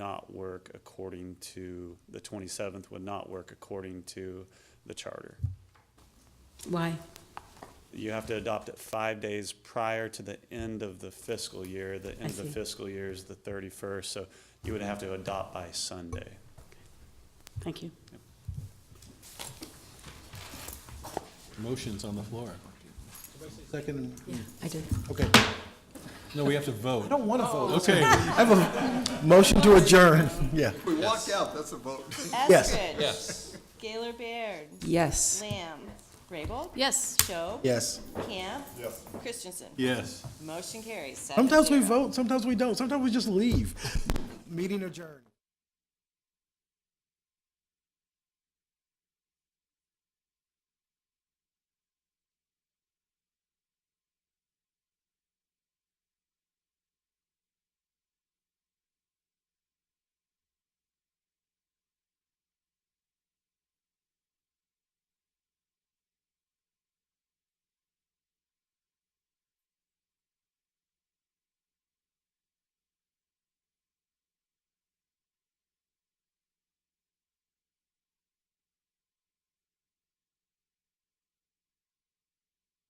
not work according to, the twenty-seventh would not work according to the charter. Why? You have to adopt it five days prior to the end of the fiscal year. The end of the see. fiscal year is the thirty-first, so you would have to adopt by Sunday. Thank you. Motion's on the floor. Second, I did. okay. No, we have to vote. I don't want to vote. Okay, I have a motion to adjourn, yeah. We walked out, that's a vote. Yes. Eskridge. Yes. Gaylor Baird. Yes. Lamb. Raybold. Yes. Schob. Yes. Camp. Christensen. yes. Motion carries. seven Sometimes we zero. vote, sometimes we don't, sometimes we just leave. Meeting adjourned.